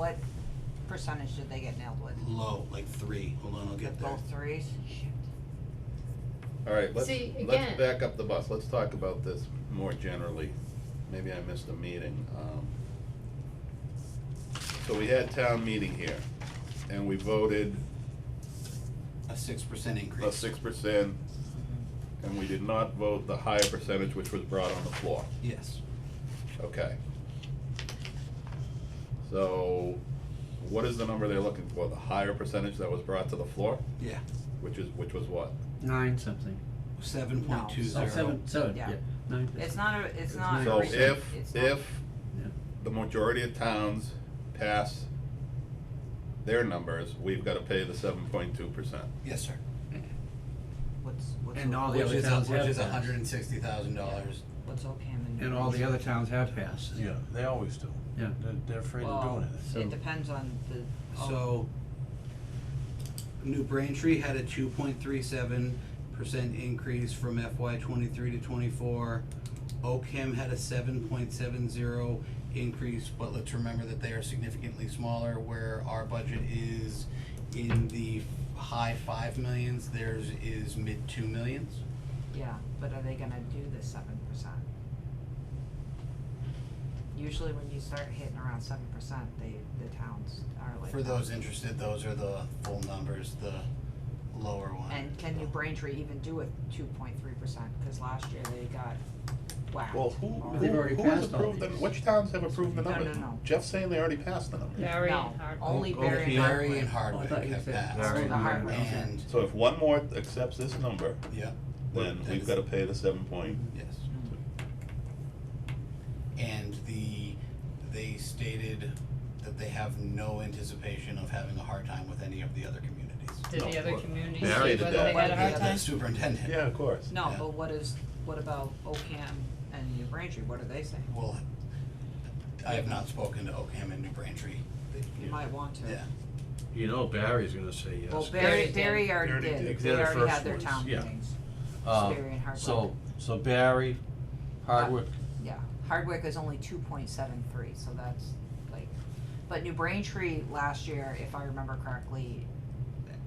what percentage did they get nailed with? low, like three, hold on, I'll Did get there. Both threes? Alright, let's, See, let's again- back up the bus, let's talk about this more generally, maybe I missed a meeting, um. So we had town meeting here, and we voted A six percent increase. a six percent, and we did not vote the higher percentage which was brought on the floor, Yes, okay? So, what is the number they're looking for, the higher percentage that was brought to the floor, yeah, which is, which was what? Nine something. seven No. point two Oh, zero. seven, seven, Yeah. yeah, nine. It's not a, it's not a So recent, if, it's not. if Yeah. the majority of towns pass their numbers, we've gotta pay the seven point two percent. Yes, sir. What's, what's, And O- all Oh, the Which other is, a- towns which have is that. hundred and sixty thousand dollars. what's Ocam and? And all the other towns have passed. Yeah, they always do. Yeah. They're, they're afraid of Well, doing it. So- it depends on the, oh, So, New Braintree had a two point three seven percent increase from FY twenty-three to twenty-four. Oakham had a seven point seven zero increase, but let's remember that they are significantly smaller, where our budget is in the high five millions, theirs is mid two millions. yeah, but are they gonna do the seven percent? Usually when you start hitting around seven percent, they, the towns are like. For those interested, those are the full numbers, the lower one. And can New Braintree even do a two point three percent, cause last year they got whacked. Well, who, or- who, They've already who has passed all approved the, these. which towns have approved the No, numbers? no, no. Jeff's saying they already passed the numbers. Barry No, and Hardwick. only Oh, Barry and okay. Hardwick. Barry and Oh, I Hardwick thought you have said passed. Barry The hard Hardwick. one. And, So if one more accepts this number, yeah, then That we've is- gotta pay the seven point. yes. And the, they stated that they have no anticipation of having a hard time with any of the other communities. Did the No, other well, communities Barry see did whether that. they had a hard The time? superintendent. Yeah, of course. No, Yeah. but what is, what about Ocam and New Braintree, what are they saying? Well, I have not spoken to Oakham and New Braintree, You might want to. yeah. You know Barry's gonna say yes. Well, Barry, Barry Barry already Barry did, did. they They're the already first had their ones, town yeah. meetings, Uh, Barry and Hardwick. So, so Barry, Hardwick, Yeah, Hardwick is only two point seven three, so that's like, but New Braintree last year, if I remember correctly,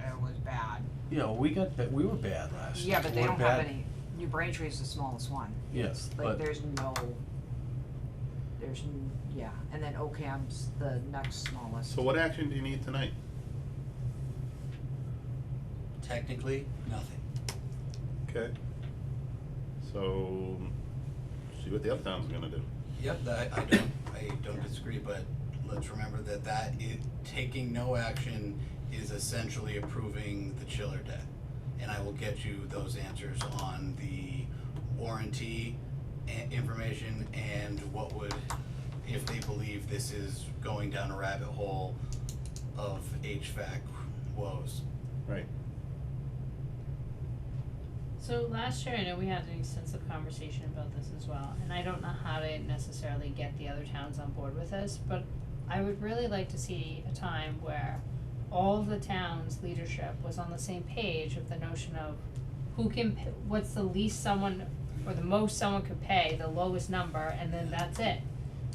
uh, it was bad. you know, we got, ba- we were bad last year. Yeah, but they We're don't have bad- any, New Braintree is the smallest one. Yes, Like, but, there's no, there's, n- yeah, and then Ocam's the next smallest. So what action do you need tonight? Technically, nothing. Okay. So, see what the other towns are gonna do. Yep, that, I don't, I don't disagree, but let's remember that that i taking no action is essentially approving the chiller debt. And I will get you those answers on the warranty a- information and what would, if they believe this is going down a rabbit hole of HVAC woes. Right. So last year, I know we had an extensive conversation about this as well, and I don't know how to necessarily get the other towns on board with this, but I would really like to see a time where all of the town's leadership was on the same page of the notion of who can, p- what's the least someone, or the most someone could pay, the lowest number, and then that's it.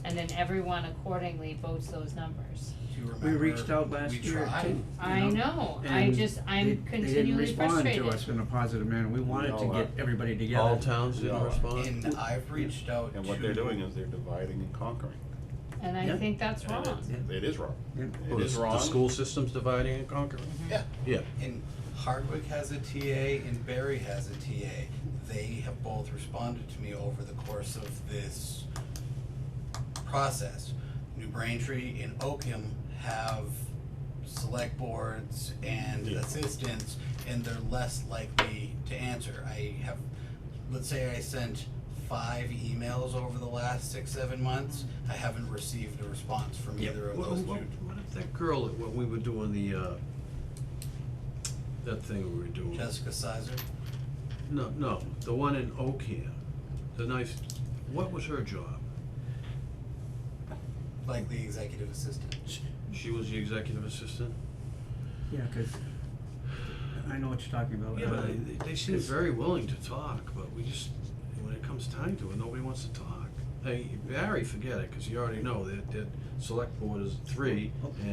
And then everyone accordingly votes those numbers. Do you We remember? reached out last we year tried? too. you I know, I and just, they- I'm continually They frustrated. didn't respond to us in a positive manner. We wanted to No, uh, get everybody together. all towns Yeah. didn't respond? And I've reached out to. And what they're doing is they're dividing and conquering. And I Yeah. think that's And wrong. it- It is wrong. Yeah. It Well, is the, wrong. the school system's dividing and conquering. Yeah. Yeah, And Hardwick has a TA and Barry has a TA. They have both responded to me over the course of this process. New Braintree and Oakham have select boards and Yeah. assistants, and they're less likely to answer. I have, let's say I sent five emails over the last six, seven months. I haven't received a response from either of What, those two. what, what if that girl, that- when we were doing the, uh, that thing we were doing? Jessica Sizer, No, no, the one in Oakham, the nice, what was her job? likely executive assistant. She was the executive assistant? Yeah, 'cause I know what you're talking about. Yeah, Uh, but they, they seem very willing to talk, but we just, when it comes time to it, nobody wants to talk. Hey, Barry, forget it, cause you already know that, that select board is three, Okay.